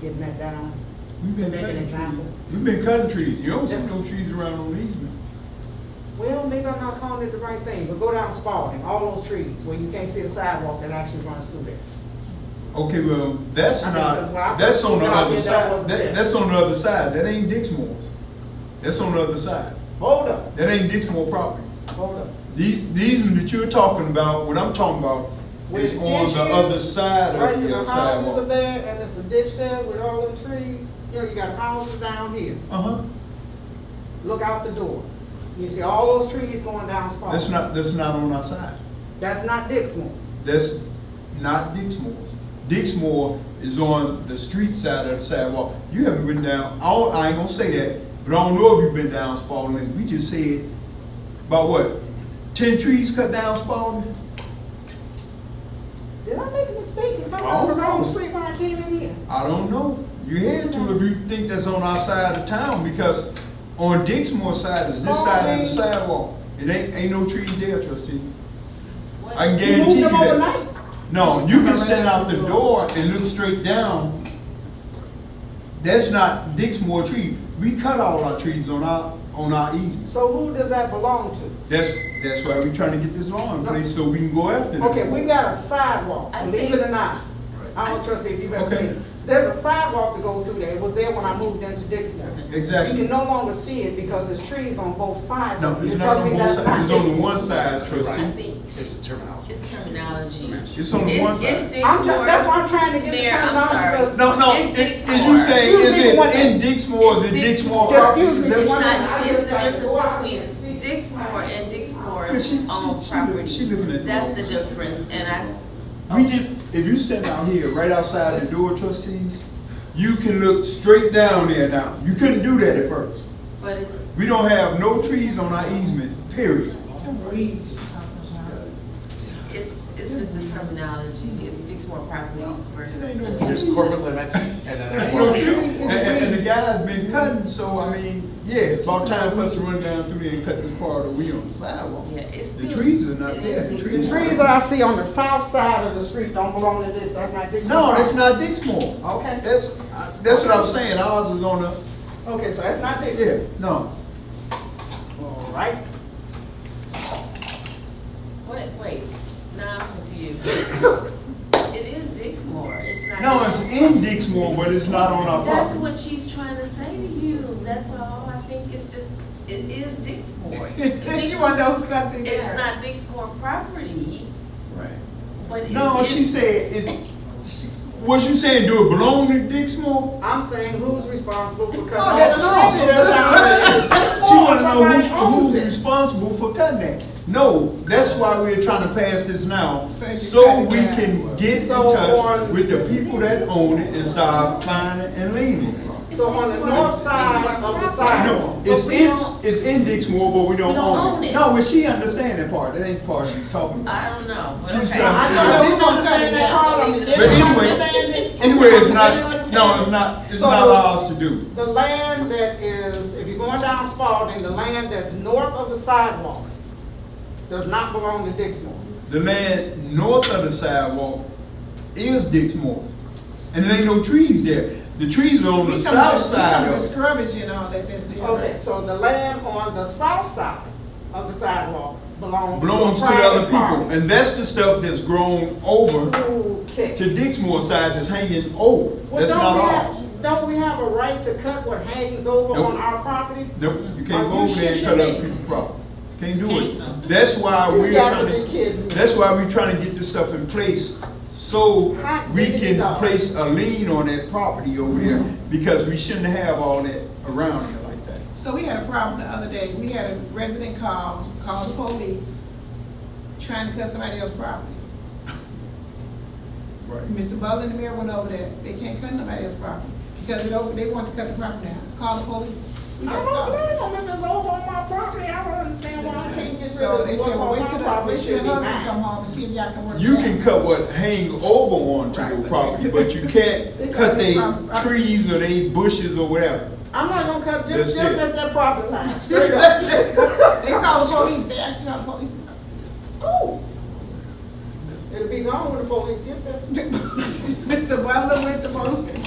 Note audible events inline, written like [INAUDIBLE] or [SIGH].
getting that down. We've been Make an cutting example. trees. We've been cutting trees. You don't see no trees around on Eastman. Well, maybe I'm not calling it the right thing, but go down Spalding, all those trees where you can't see a sidewalk that actually runs through there. Okay, well, that's I mean, 'cause when I not, that's first on the moved out other here, that side. wasn't there. That, that's on the other side. That ain't Dixmoor's. That's on the other side. Hold up, That ain't Dixmoor property. hold up. These, these one that you're talking about, what I'm talking about Where is the on ditch the is, other side Right, of and your the houses are sidewalk. there, and there's a ditch there with all them trees, you know, you got houses down here, Uh-huh. look out the door. You see all those trees going down Spalding. That's not, that's not on our side. That's not Dixmoor. That's not Dixmoor's. Dixmoor is on the street side of the sidewalk. You haven't been down, I, don't- I ain't gonna say that, but I don't know if you've been down Spalding Lane. We just said, about what, ten trees cut down Spalding? Did I make a mistake if I I on the don't know. wrong street when I came in here? I don't know. You had to if you think that's on our side of town, because on Dixmoor side is this side of the Spalding. sidewalk. It ain't, ain't no trees there, trustee. What- I can You moved guarantee you them that. overnight? No, you can stand out the door and look straight down. That's not Dixmoor tree. We cut all our trees on our, on our easements. So who does that belong to? That's, that's why we trying to get this law in place so we can go after them. Okay, we got a sidewalk, I believe it think- or not. I don't trust if you've ever Okay. seen it. There's a sidewalk that goes through there. It was there when I moved into Dixmoor. You can Exactly. no longer see it because there's trees on both sides. No, of it. it's You're not telling on me both that's not sides. It's on the Dixmoor? one side, I trustee. think It's the terminology. it's terminology. Semantics. It's on the one It's, side. it's I'm trying, that's why I'm Dixmoor. trying to get the Mayor, I'm terminology. sorry. because- No, no, It's it- is you Dixmoor. saying, Excuse is me it one in Dixmoor, is it It's Dixmoor Just property? excuse me. It's Is that It's what- not, it's the Go out there. difference between Dixmoor and But she- she- Dixmoor owned she property. li- she living at the That's the wrong place. difference, and I, We just, if you stand out here, right outside the door, trustees, you can look straight down there now. You couldn't do that at first. but it's, We don't have no trees on our easement, period. it's, it's just the terminology, it's Dixmoor property versus. Ain't no the- difference. There's corporate limits and then there's Ain't more no tree. trees. And, people. and- and the guy's been cutting, so I mean, yeah, it's about time for us to run down through there and cut this part of the wheel on the sidewalk. Yeah, it's. The still- trees are not it there. is The Dixmoor. The trees trees that I see on the south side of the street don't belong to this. That's not Dixmoor. No, that's not Dixmoor. Okay. That's, that's what I'm saying, ours is on the, Okay, so that's not yeah, Dixmoor. no. All right. [LAUGHS] Wait, wait, now I'm confused. It is Dixmoor, it's not. No, it's in Dixmoor, but it's not on our That's property. what she's trying to say to you, that's all, I think it's just, it is [LAUGHS] Dixmoor. You wanna know who cuts it It's down? not Dixmoor property, Right. but it is. No, she said it. She, what you saying? Do it belong to Dixmoor? I'm saying who's responsible for cutting No, all that- the trees no. that's out there? Oh, She want to Somebody know who, owns who's it. responsible for cutting that. No, that's why we're trying to pass this now, So you cut so it we down. can get in So touch on- with the people that own it and start finding and leaving. It's So on the Dixmoor- north side Dixmoor of the property. side. No, But it's we in don't- it's in Dixmoor, but we don't, We don't own, own it. it. No, but she understand that part. That ain't the part she's talking about. I don't know. but She was okay. trying I to know that we We're don't gonna cut it understand that down. part of it. Leave They But don't anyway, understand it. anyway, it's They don't not. understand No, it. it's not. It's So- not ours to do. The land that is, if you're going down Spalding, the land that's north of the sidewalk does not belong to Dixmoor. The land north of the sidewalk is Dixmoor. And there ain't no trees there. The trees are on the We talking about- south we talking side about of it. Scrubbage and all that, that's there. Okay, so the land on the south side of the sidewalk belongs to Belongs to the other people. And that's the stuff that's grown over Okay. to Dixmoor side that's hanging over. Well, That's don't not we ours. have, don't we have a right to cut what hangs over Nope. on our property? Nope, you Are can't go you over there and cut shitting up me? people's property. Can't do it. That's why You we're got to trying be to, kidding me. that's why we're trying to get this stuff in place. So Hot we diggity can dog. place a lien on that property over there because we shouldn't have all that around here like that. So we had a problem the other day, we had a resident call, call the police, trying to cut somebody else's property. Right. Mr. Butler and the mayor went over there, they can't cut nobody else's property, because it over, they want to cut the property down, call the police. We I got don't to call them. know if it's over on my property, I don't understand why I can't get rid So of they what's said, well, on wait my till the, property, wait till should be your husband come mine. home and see if y'all can work it out. You can cut what hang over onto Right, your but- property, but you can't They cut got they the proper- proper- trees or they bushes or whatever. I'm not gonna cut, That's just, just it. at that property [LAUGHS] line, straight up. They called the police, they actually called the police. Ooh. It'll be gone when the police get there. Mr. Butler went to police.